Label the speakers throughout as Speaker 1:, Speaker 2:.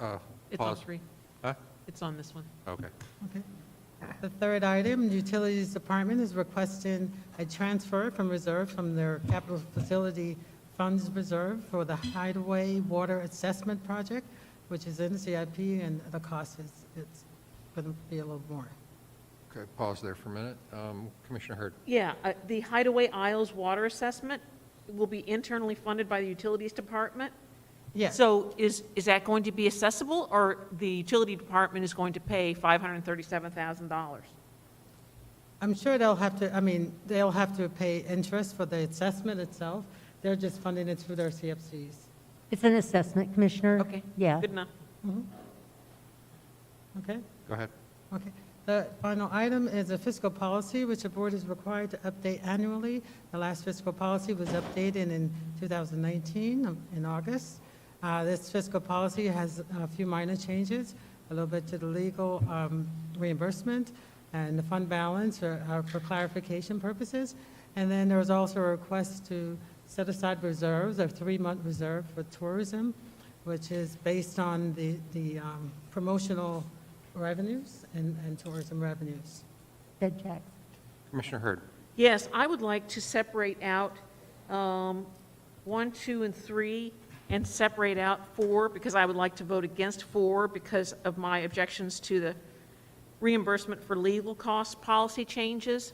Speaker 1: Uh,
Speaker 2: It's on
Speaker 1: pause.
Speaker 2: three.
Speaker 1: Huh?
Speaker 2: It's on this one.
Speaker 1: Okay.
Speaker 3: Okay. The third item, Utilities Department is requesting a transfer from reserve from their capital facility funds reserve for the Hideaway Water Assessment Project, which is in the CIP, and the cost is, it's going to be a little more.
Speaker 1: Okay, pause there for a minute. Um, Commissioner Hurd.
Speaker 2: Yeah, uh, the Hideaway Isles water assessment will be internally funded by the Utilities Department.
Speaker 3: Yes,
Speaker 2: So is, is that going to be accessible, or the Utility Department is going to pay $537,000?
Speaker 3: I'm sure they'll have to, I mean, they'll have to pay interest for the assessment itself. They're just funding it through their CFCs.
Speaker 4: It's an assessment, Commissioner.
Speaker 2: Okay.
Speaker 4: Yeah.
Speaker 2: Good enough.
Speaker 3: Okay?
Speaker 1: Go ahead.
Speaker 3: Okay. The final item is a fiscal policy, which the board is required to update annually. The last fiscal policy was updated in 2019, um, in August. Uh, This fiscal policy has a few minor changes, a little bit to the legal um, reimbursement and the fund balance are- are for clarification purposes. And then there was also a request to set aside reserves, a three-month reserve for tourism, which is based on the the um, promotional revenues and and tourism revenues.
Speaker 4: Ed Jackson.
Speaker 1: Commissioner Hurd.
Speaker 2: Yes, I would like to separate out um, one, two, and three, and separate out four, because I would like to vote against four because of my objections to the reimbursement for legal cost policy changes.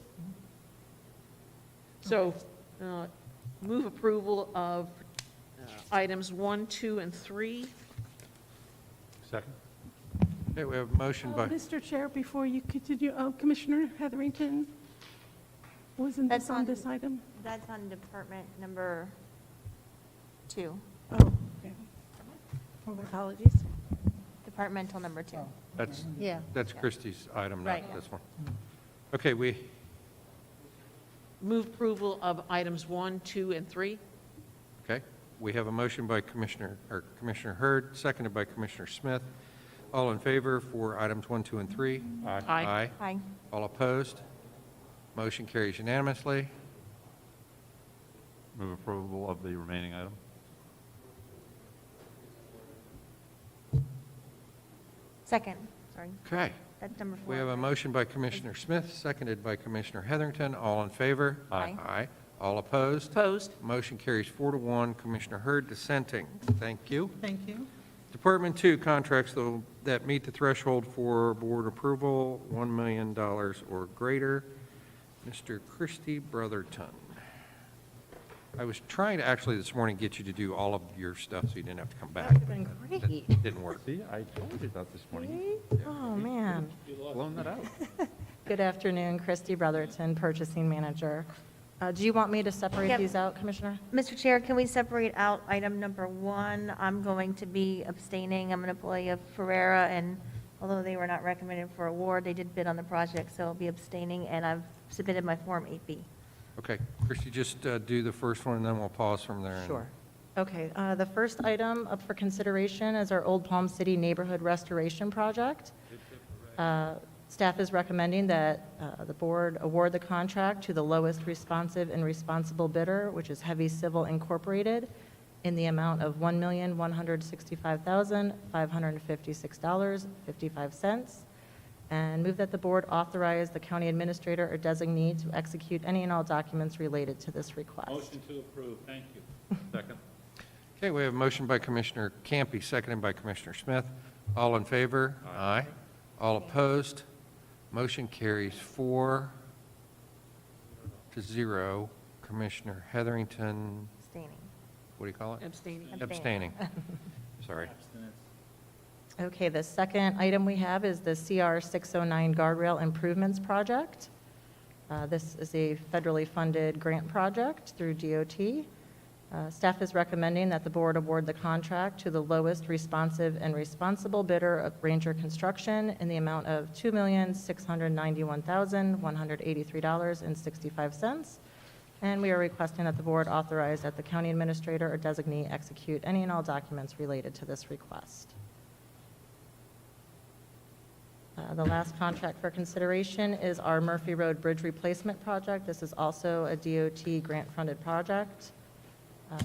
Speaker 2: So uh, move approval of uh, items one, two, and three.
Speaker 1: Second. Okay, we have a motion by,
Speaker 5: Uh, Mr. Chair, before you continue, uh, Commissioner Heatherington, wasn't this
Speaker 6: That's
Speaker 5: on
Speaker 6: on-
Speaker 5: this item?
Speaker 6: That's on department number two,
Speaker 5: Oh, okay. Apologies.
Speaker 6: departmental number two.
Speaker 1: that's,
Speaker 4: Yeah.
Speaker 1: that's Christie's item, not
Speaker 6: Right.
Speaker 1: this one. Okay, we,
Speaker 2: Move approval of items one, two, and three.
Speaker 1: okay, we have a motion by Commissioner, or Commissioner Hurd, seconded by Commissioner Smith. All in favor for items one, two, and three? Aye.
Speaker 2: Aye.
Speaker 1: Aye.
Speaker 6: Aye.
Speaker 1: All opposed? Motion carries unanimously.
Speaker 7: Move approval of the remaining item.
Speaker 6: Second, sorry,
Speaker 1: Okay,
Speaker 6: that's number four.
Speaker 1: we have a
Speaker 6: right?
Speaker 1: motion by Commissioner Smith, seconded by Commissioner Heatherington. All in favor?
Speaker 6: Aye.
Speaker 1: Aye. All opposed?
Speaker 2: Opposed?
Speaker 1: Motion carries four to one. Commissioner Hurd dissenting. Thank you.
Speaker 3: Thank you.
Speaker 1: Department two, contracts tho- that meet the threshold for board approval, $1 million or greater. Mr. Christie Brotherton. I was trying to actually this morning get you to do all of your stuff so you didn't have to come back. but that Didn't work.
Speaker 7: See, I told you that this morning.
Speaker 6: Oh, man.
Speaker 7: Blown that out.
Speaker 8: Good afternoon, Christy Brotherton, Purchasing Manager. Uh, Do you want me to separate
Speaker 6: Yep.
Speaker 8: these out, Commissioner?
Speaker 6: Mr. Chair, can we separate out item number one? I'm going to be abstaining, I'm an employee of Ferrera, and although they were not recommended for award, they did bid on the project, so I'll be abstaining, and I've submitted my Form 8B.
Speaker 1: Okay, Christie, just uh, do the first one, and then we'll pause from there. and-
Speaker 8: Okay, uh, the first item up for consideration is our Old Palm City Neighborhood Restoration Project. Uh, Staff is recommending that uh, the board award the contract to the lowest responsive and responsible bidder, which is Heavy Civil Incorporated, in the amount of $1,165,556.55. And move that the board authorize the county administrator or designee to execute any and all documents related to this request.
Speaker 9: Motion to approve, thank you.
Speaker 7: Second.
Speaker 1: Okay, we have a motion by Commissioner Campy, seconded by Commissioner Smith. All in favor? Aye. All opposed? Motion carries four to zero. Commissioner Heatherington,
Speaker 6: Abstaining.
Speaker 1: what do you call it?
Speaker 2: Abstaining.
Speaker 1: Abstaining. Sorry.
Speaker 8: Okay, the second item we have is the CR 609 Guardrail Improvements Project. Uh, This is a federally funded grant project through DOT. Uh, Staff is recommending that the board award the contract to the lowest responsive and responsible bidder of Ranger Construction in the amount of $2,691,183.65. And we are requesting that the board authorize that the county administrator or designee execute any and all documents related to this request. Uh, The last contract for consideration is our Murphy Road Bridge Replacement Project. This is also a DOT grant-funded project. Uh,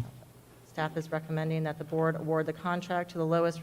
Speaker 8: Staff is recommending that the board award the contract to the lowest